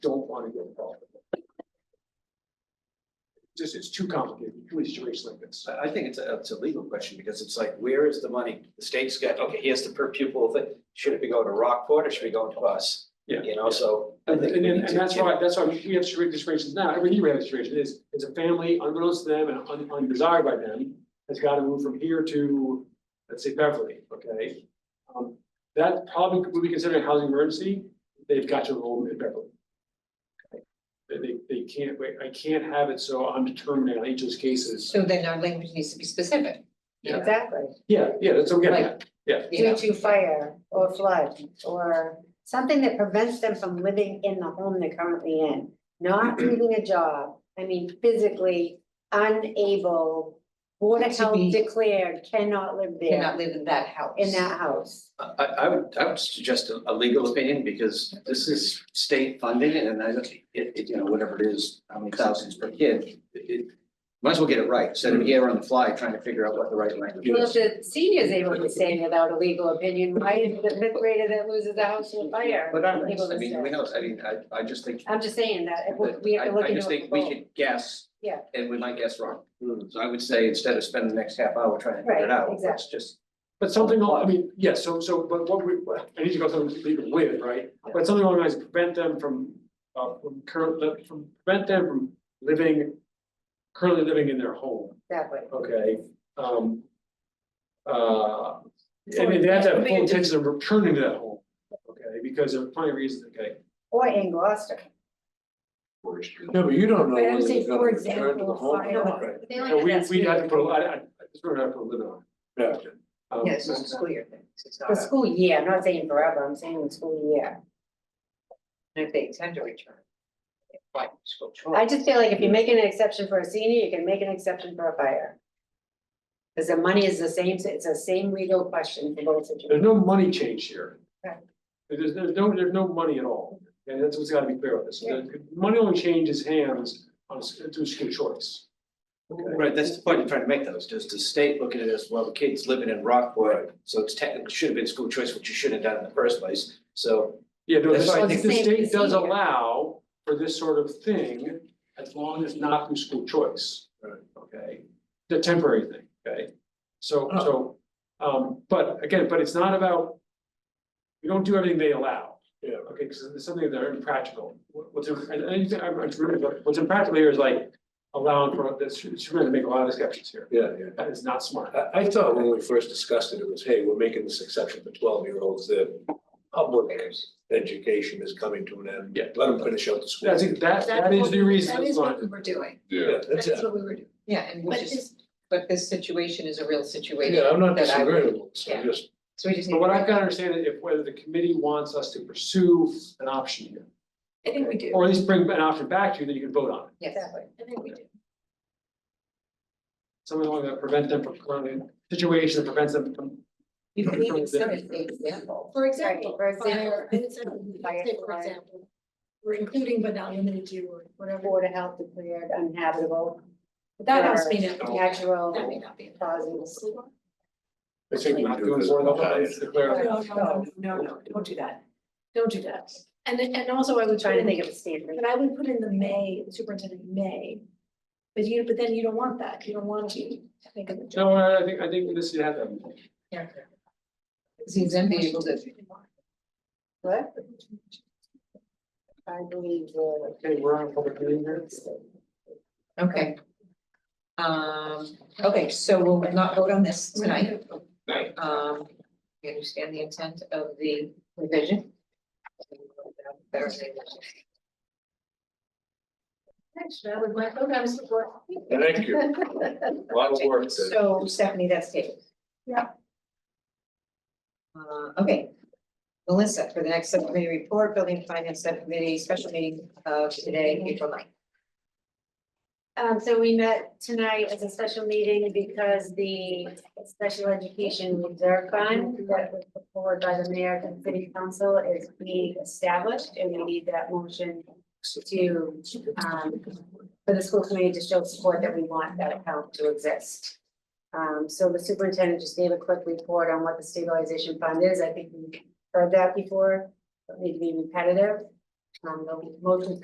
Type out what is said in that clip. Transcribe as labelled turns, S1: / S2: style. S1: want to get involved. with it. Just, it's too complicated, too situation like this.
S2: I, I think it's a, it's a legal question, because it's like, where is the money? The state's got, okay, here's the per pupil thing, should it be going to Rockport or should it be going to us?
S1: Yeah.
S2: You know, so. I
S1: And
S2: think
S1: and
S2: we
S1: then,
S2: need
S1: and
S2: to
S1: that's
S2: get-
S1: why, that's why we have strict registrations now, every year we have registration is, it's a family unbeknownst to them and un- undesired by them. Has got to move from here to, let's say Beverly, okay? Um, that probably would be considered a housing emergency, they've got to enroll in Beverly. Okay. They, they, they can't, wait, I can't have it, so I'm determining on each of those cases.
S3: So then our language needs to be specific,
S1: Yeah,
S4: Exactly,
S1: yeah, yeah, that's what I'm getting at,
S3: you
S4: due
S3: know,
S4: to fire or flood or something that prevents them from living in the home they're currently in. Not leaving a job, I mean physically unable, Board of
S3: To
S4: Health
S3: be-
S4: declared cannot live
S3: cannot
S4: there
S3: live in that house.
S4: in that house.
S2: I, I would, I would suggest a, a legal opinion, because this is state funding, and I, don't- it, it, you know, whatever it is, how many thousands per kid, it, it. Might as well get it right, instead of here on the fly trying to figure out what the right language
S4: Well,
S2: is.
S4: if the senior's able to say without a legal opinion, why is the fifth grader that loses the house in a fire?
S2: But I,
S4: able to
S2: I mean,
S4: say?
S2: we know, I mean, I, I just think.
S4: I'm just saying that, if we- we have to
S2: I,
S4: look
S2: I
S4: into it.
S2: just think
S4: for
S2: we
S4: both.
S2: could guess.
S4: Yeah.
S2: And we might guess wrong. So I would say, instead of spending the next half hour trying to figure it
S4: Right,
S2: out, let's
S4: exactly.
S2: just.
S1: but something, al- I mean, yeah, so, so, but what we, what- I need to go through and leave it with, right? But something along those lines, prevent them from, uh, from current, from, prevent them from living, currently living in their home,
S4: Exactly.
S1: okay? Um. Uh, and then they have to have full intention of returning to that home, okay, because there are plenty of reasons, okay?
S4: Or in Gloucester.
S5: No, but you don't know
S4: But I'm
S5: whether they're
S4: saying,
S5: gonna
S4: for
S5: return to the
S4: example,
S5: home. or
S4: fire.
S5: not.
S3: They
S1: And
S3: only have
S1: we,
S3: that
S1: we
S3: school
S1: have to
S3: year.
S1: put, a- I, I, it's really not put a limit on.
S5: Yeah.
S1: it. Um,
S3: Yeah, it's just a school year thing, it's not,
S4: The
S3: a-
S4: school year, I'm not saying forever, I'm saying the school year.
S3: and if they intend to return. Right, school
S4: I
S3: choice,
S4: just feel like if you're making an exception for a senior, you can make an exception for a fire. Because the money is the same, it's the same legal question for both
S1: There's
S4: situations.
S1: no money change here.
S4: Right.
S1: There's, there's no, there's no money at all, and that's what's gotta be clear on this,
S4: Yeah.
S1: The money only changes hands on, a s- through school choice.
S2: Right, that's the point I'm trying to make though, is does the state look at it as, well, the kid's living in Rockport, so it's technically, should have been school choice, which you shouldn't have done in the first place, so.
S1: Yeah, no,
S2: That's
S1: this-
S2: why I
S1: the
S2: think-
S1: state does
S4: Same procedure.
S1: allow for this sort of thing, as long as not through school choice. Okay, the temporary thing, okay? So, so, um, but again, but it's not about. We don't do everything they allow.
S5: Yeah.
S1: Okay, because it's something that are impractical, What- what's, and, and I'm, I'm, sure, but what's impractical here is like. Allowing for, that's, it's gonna make a lot of exceptions here,
S5: Yeah, yeah.
S1: that is not smart.
S5: I, I thought when we first discussed it, it was, hey, we're making this exception for twelve-year-olds, the public education is coming to an end.
S1: Yeah.
S5: Let them finish out the school.
S1: That's, that, that is
S3: what-
S1: the reason
S3: That
S1: it's
S3: is
S1: not,
S3: what we were doing,
S5: Yeah, that's
S3: that's
S5: it.
S3: what we were doing, yeah, and we
S4: But
S3: just, but this situation is a real situation.
S5: Yeah, I'm not
S3: that I would-
S5: disagreeing with this,
S3: yeah.
S5: I'm just,
S3: So we just need.
S1: but what
S3: to-
S1: I've got to understand is if whether the committee wants us to pursue an option here.
S3: I think we do,
S1: Or at least bring an option back to you that you can vote on.
S3: yes,
S4: Exactly.
S3: I think we do.
S1: Something along that prevent them from, from a situation that prevents them from,
S3: You
S1: From
S3: can
S1: there.
S3: set an example.
S6: For example,
S4: for example.
S6: fire, and it's a-
S4: Fire,
S6: say for
S4: fire.
S6: example, we're including but not limited to, or whatever.
S4: Board of Health declared uninhabitable,
S6: That has to be,
S4: Or-
S6: that
S4: natural
S6: may not be.
S4: causes.
S5: I think we
S1: not
S5: do
S1: doing
S5: this.
S1: for the whole, it's
S6: No,
S1: declared.
S6: no, no, no, no, don't do that. Don't do that. And then- and also I would try
S4: Trying
S6: to
S4: to think
S6: think
S4: of a standard.
S6: but I would put in the may, the superintendent may. But you, but then you don't want that. You don't want to think of the job.
S1: No, I I think, I think this should happen.
S3: Yeah. Seems enviable that
S4: What? I believe the.
S1: Okay, we're on a public meeting here.
S3: Okay. Um, okay, so we'll not vote on this tonight.
S2: Right.
S3: Um, we understand the intent of the revision.
S6: Actually, I would like, okay, I'm support.
S5: Thank you, a lot of work there.
S3: So Stephanie, that's tabled.
S6: Yeah.
S3: Uh, okay. Melissa, for the next subcommittee report, building and finance subcommittee, special meeting of today, April 9th.
S4: Um, so we met tonight as a special meeting because the Special Education Reserve Fund that was put forward by the mayor and city council is being established and we need that motion to, um, for the school committee to show support that we want that account to exist. Um, so the superintendent just gave a quick report on what the stabilization fund is. I think we heard that before. Don't need to be repetitive. Um, the motion